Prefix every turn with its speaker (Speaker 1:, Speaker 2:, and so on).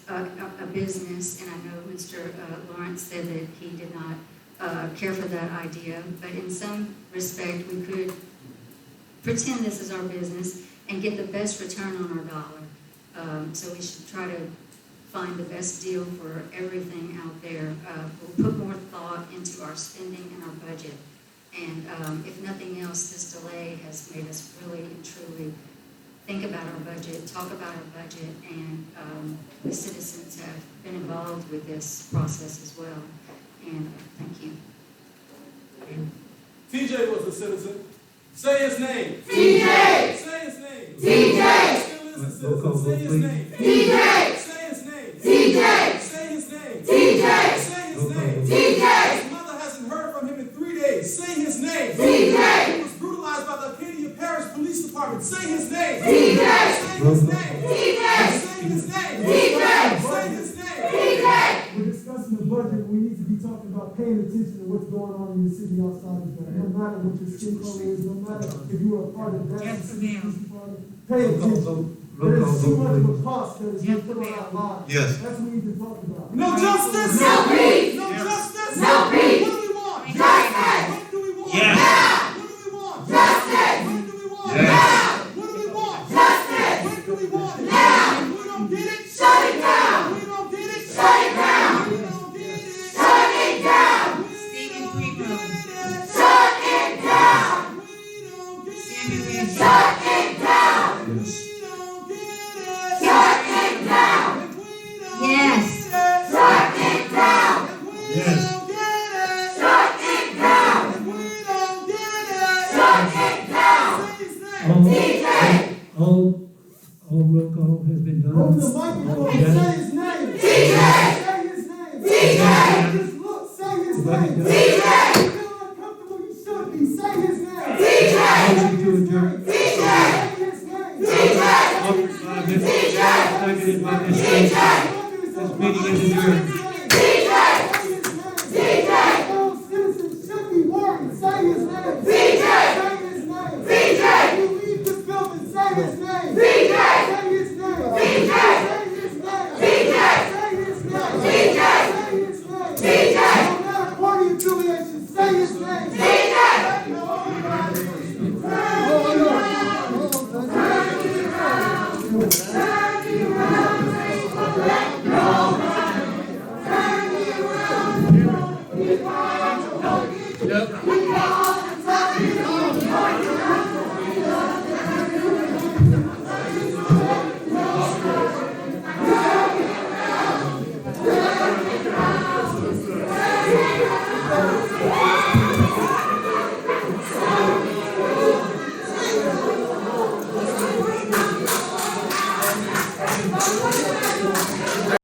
Speaker 1: business, and I know Mr. uh, Lawrence said that he did not uh, care for that idea, but in some respect, we could pretend this is our business and get the best return on our dollar. Um, So we should try to find the best deal for everything out there. Uh, We'll put more thought into our spending and our budget. And um, if nothing else, this delay has made us really and truly think about our budget, talk about our budget, and um, the citizens have been involved with this process as well. And uh, thank you.
Speaker 2: TJ was a citizen. Say his name.
Speaker 3: TJ!
Speaker 2: Say his name.
Speaker 3: TJ!
Speaker 2: Still is a
Speaker 4: Roll call
Speaker 2: citizen. Say
Speaker 4: vote,
Speaker 2: his name.
Speaker 4: please.
Speaker 3: TJ!
Speaker 2: Say his name.
Speaker 3: TJ!
Speaker 2: Say his name.
Speaker 3: TJ!
Speaker 2: Say
Speaker 4: Roll
Speaker 2: his
Speaker 4: call
Speaker 2: name.
Speaker 4: vote.
Speaker 3: TJ!
Speaker 2: His mother hasn't heard from him in three days. Say his name.
Speaker 3: TJ!
Speaker 2: He was brutalized by the Acadia Parish Police Department. Say his name.
Speaker 3: TJ!
Speaker 2: Say his name.
Speaker 3: TJ!
Speaker 2: Say his name.
Speaker 3: TJ!
Speaker 2: Say his name.
Speaker 3: TJ!
Speaker 5: We're discussing the budget, we need to be talking about paying attention to what's going on in the city outside of that. No matter what your skin color is, no matter if you are a part of that.
Speaker 6: Yes,
Speaker 5: ma'am. Pay
Speaker 4: Roll call
Speaker 5: attention.
Speaker 4: vote, roll call
Speaker 5: There's too much of
Speaker 4: vote,
Speaker 5: a cost that is being put on our lives.
Speaker 4: Yes.
Speaker 5: That's what we need to talk about.
Speaker 2: No justice.
Speaker 3: No peace!
Speaker 2: No justice.
Speaker 3: No peace.
Speaker 2: What do we want?
Speaker 3: Justice.
Speaker 2: What do we want? What do we want?
Speaker 3: Justice.
Speaker 2: What do we want?
Speaker 4: Yes.
Speaker 2: What do we want?
Speaker 3: Justice.
Speaker 2: What do we want? Now. If we don't get it,
Speaker 3: Shut it down.
Speaker 2: If We don't get it, shut it down. We don't get it, shut
Speaker 3: it down.
Speaker 2: Stephen Rico.
Speaker 3: Shut it down!
Speaker 2: We don't get it.
Speaker 3: Shut it down!
Speaker 2: We don't get it.
Speaker 3: Shut it down!
Speaker 2: If we don't
Speaker 1: Yes.
Speaker 2: get it,
Speaker 3: Shut it down!
Speaker 2: if we
Speaker 4: Yes.
Speaker 2: don't get it,
Speaker 3: Shut it down!
Speaker 2: if we don't get
Speaker 3: Shut it down!
Speaker 2: it, say his name.
Speaker 3: TJ!
Speaker 4: All, all, all roll call has been done.
Speaker 5: Open the microphone,
Speaker 4: Yes.
Speaker 5: say his name.
Speaker 3: TJ.
Speaker 5: Say his name.
Speaker 3: TJ.
Speaker 5: Just look, say his
Speaker 4: Let it
Speaker 5: name.
Speaker 4: go.
Speaker 3: TJ.
Speaker 5: You feel uncomfortable, you should be, say his name.
Speaker 3: TJ.
Speaker 5: Say his
Speaker 4: Motion to adjourn.
Speaker 5: name.
Speaker 3: TJ.
Speaker 5: Say his name.
Speaker 3: TJ.
Speaker 4: Offered by Mr.
Speaker 3: TJ.
Speaker 4: Seconded by Ms. Jones.
Speaker 3: TJ.
Speaker 4: This meeting is adjourned.